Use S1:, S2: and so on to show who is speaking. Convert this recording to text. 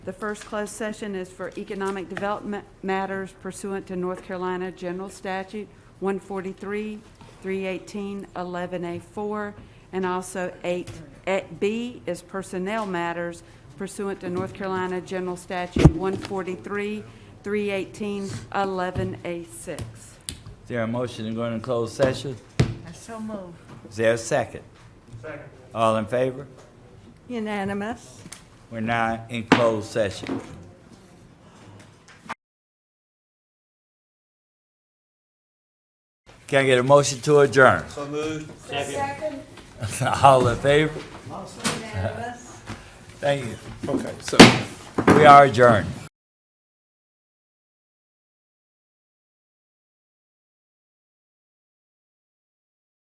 S1: The first closed session is for economic development matters pursuant to North Carolina General Statute 143, 318, 11A4, and also 8B is personnel matters pursuant to North Carolina General Statute 143, 318, 11A6.
S2: Is there a motion to go into closed session?
S3: I so move.
S2: Is there a second? Second. All in favor?
S3: Unanimous.
S2: We're now in closed session. Can I get a motion to adjourn? So moved. Second. All in favor?
S3: Unanimous.
S2: Thank you.
S4: Okay, so.
S2: We are adjourned.